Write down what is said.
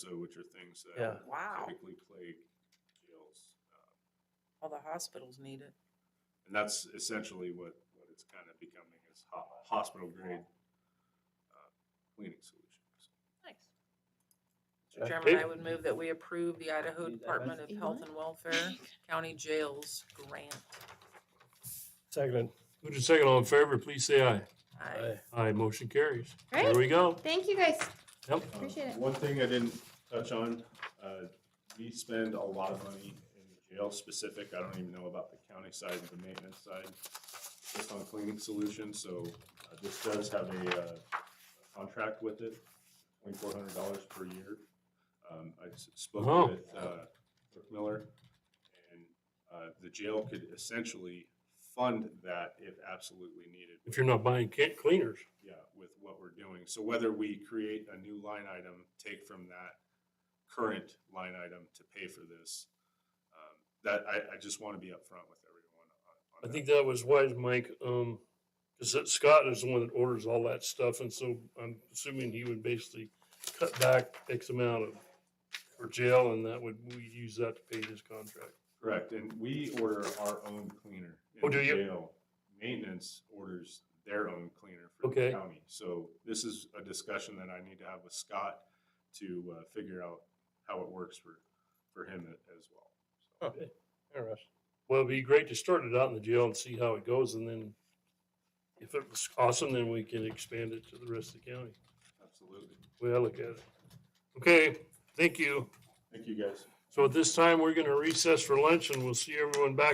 So which are things Yeah. that Wow. typically plague jails. Uh, All the hospitals need it. And that's essentially what, what it's kind of becoming is ho- hospital grade uh, cleaning solutions. Nice. Mr. Chairman, I would move that we approve the Idaho Department of Health and Welfare County Jails Grant. Second. Move to second, all in favor, please say aye. I Aye, motion carries. There Great. we go. Thank you guys. Yep. Um, Appreciate it. One thing I didn't touch on, uh, we spend a lot of money in the jail specific, I don't even know about the county side, the maintenance side, just on cleaning solutions, so uh, this does have a, uh, contract with it, twenty-four hundred dollars per year. Um, I s- Oh. spoke with, uh, Kirk Miller, and, uh, the jail could essentially fund that if absolutely needed. If you're not buying ca- cleaners, Yeah, with what we're doing. So whether we create a new line item, take from that current line item to pay for this, um, that, I, I just want to be upfront with everyone on- I on. think that was wise, Mike, um, because Scott is the one that orders all that stuff, and so I'm assuming he would basically cut back X amount of for jail, and that would, we use that to pay his contract. Correct, and we order our own cleaner. in Oh, do the you? jail. Maintenance orders their own cleaner for the Okay. county. So this is a discussion that I need to have with Scott to, uh, figure out how it works for, for him a- as well. So, Interesting. Well, it'd be great to start it out in the jail and see how it goes, and then if it was awesome, then we can expand it to the rest of the county. Absolutely. The way I look at it. Okay, thank you. Thank you, guys. So at this time, we're gonna recess for lunch, and we'll see everyone back